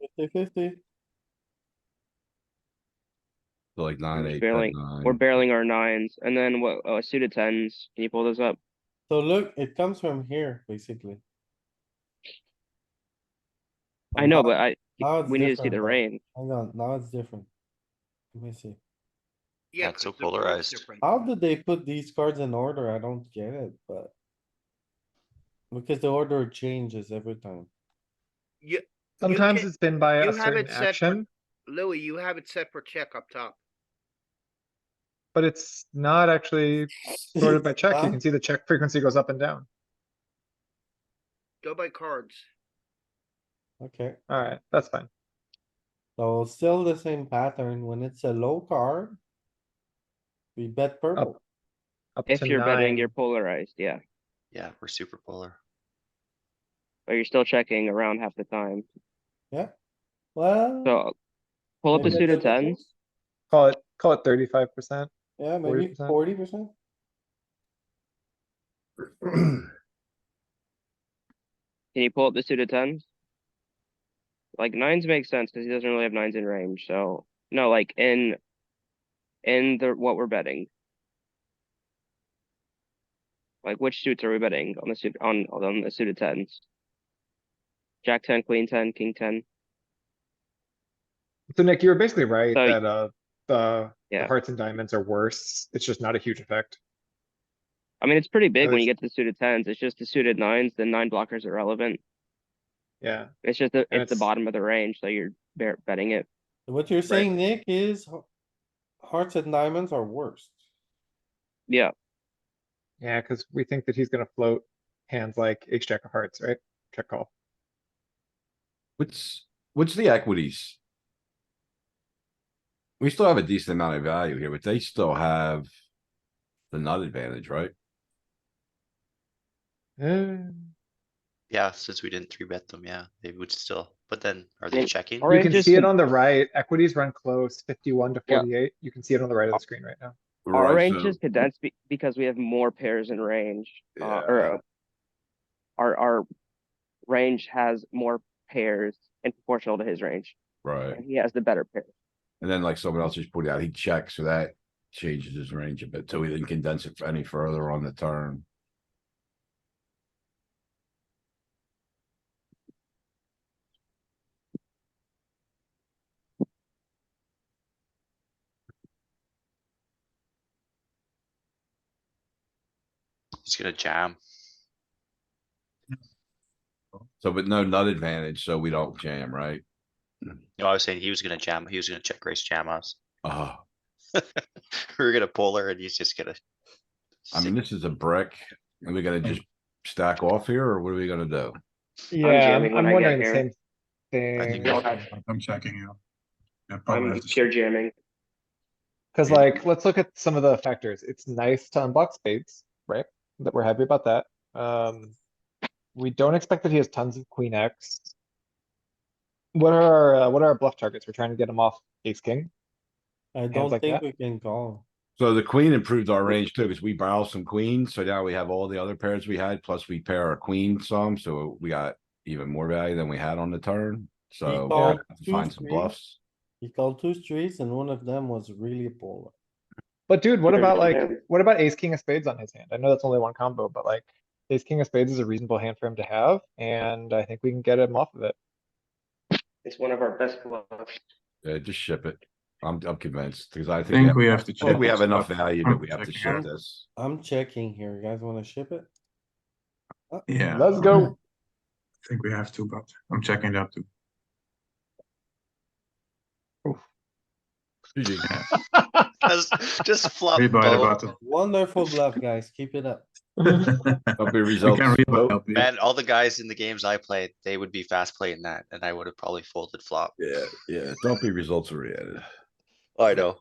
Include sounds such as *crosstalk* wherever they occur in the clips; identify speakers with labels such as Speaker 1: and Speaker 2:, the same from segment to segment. Speaker 1: fifty fifty.
Speaker 2: So like nine,
Speaker 3: just
Speaker 2: eight,
Speaker 3: barreling-
Speaker 2: ten,
Speaker 3: We're
Speaker 2: nine.
Speaker 3: barreling our nines, and then what, uh, suited tens, can you pull those up?
Speaker 1: So look, it comes from here, basically. Oh,
Speaker 3: I know, but I,
Speaker 1: now it's
Speaker 3: we need to
Speaker 1: different
Speaker 3: see the
Speaker 1: now.
Speaker 3: range.
Speaker 1: Hang on, now it's different. Let me see.
Speaker 4: Yeah,
Speaker 5: Not so
Speaker 4: 'cause they're both
Speaker 5: polarized.
Speaker 4: different.
Speaker 1: How did they put these cards in order? I don't get it, but. Because the order changes every time.
Speaker 4: You,
Speaker 6: Sometimes
Speaker 4: can-
Speaker 6: it's been by
Speaker 4: you
Speaker 6: a
Speaker 4: have
Speaker 6: certain
Speaker 4: it set for-
Speaker 6: action,
Speaker 4: Louis, you have it set for check up top.
Speaker 6: but it's not actually sorted by check. You
Speaker 1: Huh?
Speaker 6: can see the check frequency goes up and down.
Speaker 4: Go by cards.
Speaker 1: Okay,
Speaker 6: Alright, that's fine.
Speaker 1: so still the same pattern. When it's a low card. We bet
Speaker 3: Oh.
Speaker 1: purple.
Speaker 6: Up
Speaker 3: If
Speaker 6: to
Speaker 3: you're betting, you're
Speaker 6: nine.
Speaker 3: polarized, yeah,
Speaker 5: Yeah, we're super polar.
Speaker 3: but you're still checking around half the time,
Speaker 1: Well.
Speaker 3: so. Pull up
Speaker 1: maybe
Speaker 3: the suited
Speaker 1: 30%?
Speaker 3: tens,
Speaker 6: Call it, call it thirty-five percent.
Speaker 1: Yeah, maybe
Speaker 6: 40%.
Speaker 1: forty percent.
Speaker 3: can you pull up the suited tens? Like nines make sense, cause he doesn't really have nines in range, so, no, like in. In the, what we're betting. Like which suits are we betting on the suit, on, on the suited tens? Jack ten, queen ten, king ten,
Speaker 6: So Nick, you were basically right
Speaker 3: So-
Speaker 6: that, uh, the the
Speaker 3: Yeah.
Speaker 6: hearts and diamonds are worse. It's just not a huge effect.
Speaker 3: I mean, it's pretty big when
Speaker 6: it's-
Speaker 3: you get to the suited tens, it's just the suited nines, the nine blockers are relevant.
Speaker 6: Yeah,
Speaker 3: It's just the,
Speaker 6: And
Speaker 3: it's the
Speaker 6: it's-
Speaker 3: bottom of the range, so you're bet- betting it.
Speaker 1: What you're saying, Nick, is h- hearts and diamonds are worst.
Speaker 3: Yeah,
Speaker 6: yeah, cuz we think that he's gonna float hands like ace jack of hearts, right? Check call.
Speaker 2: *clears throat* What's, what's the equities? We still have a decent amount of value here, but they still have the nut advantage, right?
Speaker 6: Eh,
Speaker 5: Yeah, since we didn't three bet them, yeah, they would still, but then are they
Speaker 3: Well,
Speaker 5: checking?
Speaker 3: all
Speaker 6: You
Speaker 3: Orange
Speaker 6: can
Speaker 3: is
Speaker 6: see it
Speaker 3: the-
Speaker 6: on the right. Equities run close, fifty-one to
Speaker 3: Yeah.
Speaker 6: forty-eight. You can see it on the right of the screen right now.
Speaker 3: our
Speaker 2: Right,
Speaker 3: range
Speaker 2: so-
Speaker 3: is condensed be- because we have more pairs in range, uh,
Speaker 2: Yeah.
Speaker 3: or. uh, Our, our range has more pairs in proportional to his range,
Speaker 2: Right,
Speaker 3: and he has the better pair.
Speaker 2: and then like someone else just pointed out, he checks, so that changes his range a bit, so he didn't condense it any further on the turn.
Speaker 5: He's gonna jam.
Speaker 2: So, but no nut advantage, so we don't jam, right?
Speaker 5: No, I was saying he was gonna jam, he was gonna check raise jam us. *laughs*
Speaker 2: Ah,
Speaker 5: We were gonna polar and he's just gonna.
Speaker 2: I mean,
Speaker 5: sick-
Speaker 2: this is a brick, are we gonna
Speaker 3: Mm.
Speaker 2: just stack off here, or what are we gonna do?
Speaker 6: Yeah,
Speaker 3: jamming
Speaker 6: I'm,
Speaker 3: when
Speaker 6: I'm
Speaker 3: I get
Speaker 6: wondering the
Speaker 3: here.
Speaker 6: same
Speaker 5: I think
Speaker 6: thing.
Speaker 5: that's-
Speaker 7: I'm checking you. Yeah,
Speaker 2: Oh,
Speaker 7: probably
Speaker 3: I'm
Speaker 7: have to
Speaker 3: pure jamming.
Speaker 6: Cause
Speaker 2: Yeah.
Speaker 6: like, let's look at some of the factors. It's nice to unblock spades, right? That we're happy about that. Um, we don't expect that he has tons of queen X. What are our, uh, what are our bluff targets? We're trying to get him off ace king.
Speaker 1: I don't
Speaker 6: like
Speaker 1: think
Speaker 6: that?
Speaker 1: we can call.
Speaker 2: So the queen improved our range too, because we barrel some queens, so now we have all the other pairs we had, plus we pair our queen some, so we got even more value than we had on the turn, so. we
Speaker 1: called
Speaker 2: have to
Speaker 1: two
Speaker 2: Find some
Speaker 1: queens.
Speaker 2: bluffs.
Speaker 1: He called two streets and one of them was really polar.
Speaker 6: But dude, what
Speaker 3: Very
Speaker 6: about
Speaker 3: good
Speaker 6: like,
Speaker 3: hand.
Speaker 6: what about ace king of spades on his hand? I know that's only one combo, but like, ace king of spades is a reasonable hand for him to have, and I think we can get him off of it.
Speaker 3: It's one of our best bluffs.
Speaker 2: Yeah, just ship it. I'm, I'm convinced, because I
Speaker 7: I think
Speaker 2: think, we
Speaker 7: we
Speaker 2: have-
Speaker 7: have to
Speaker 2: I
Speaker 7: check.
Speaker 2: think we have
Speaker 7: this
Speaker 2: enough
Speaker 7: stuff.
Speaker 2: value
Speaker 7: I'm
Speaker 2: that we have to
Speaker 7: checking
Speaker 2: ship
Speaker 7: out.
Speaker 2: this.
Speaker 1: I'm checking here. You guys wanna ship it?
Speaker 7: Yeah.
Speaker 6: Let's go.
Speaker 7: I think we have to, but I'm checking it out too.
Speaker 2: GG.
Speaker 5: *laughs* Just just flop
Speaker 7: Rebuy the
Speaker 5: both.
Speaker 7: button.
Speaker 1: *laughs* Wonderful bluff, guys. Keep it up.
Speaker 7: *laughs*
Speaker 2: Don't be
Speaker 7: We can
Speaker 2: results.
Speaker 7: rebuy.
Speaker 2: Nope.
Speaker 7: LP.
Speaker 5: Man, all the guys in the games I played, they would be fast playing that and I would have probably folded flop.
Speaker 2: Yeah, yeah, don't be results oriented.
Speaker 5: I know.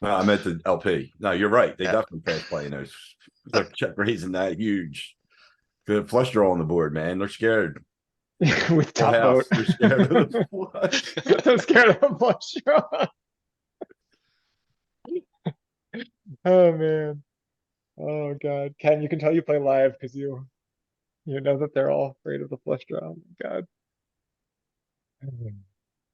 Speaker 2: No, I meant the LP. No, you're right. They
Speaker 5: Yeah.
Speaker 2: definitely pass play in those. They're check raising that huge. Good flush draw on the board, man. They're scared.
Speaker 6: *laughs* With
Speaker 2: Full
Speaker 6: top
Speaker 2: house.
Speaker 6: boat.
Speaker 2: They're scared
Speaker 6: *laughs*
Speaker 2: of the flush.
Speaker 6: I'm scared of a flush draw. *laughs* Oh, man. Oh, God. Ken, you can tell you play live because you, you know that they're all afraid of the flush draw. Oh my God.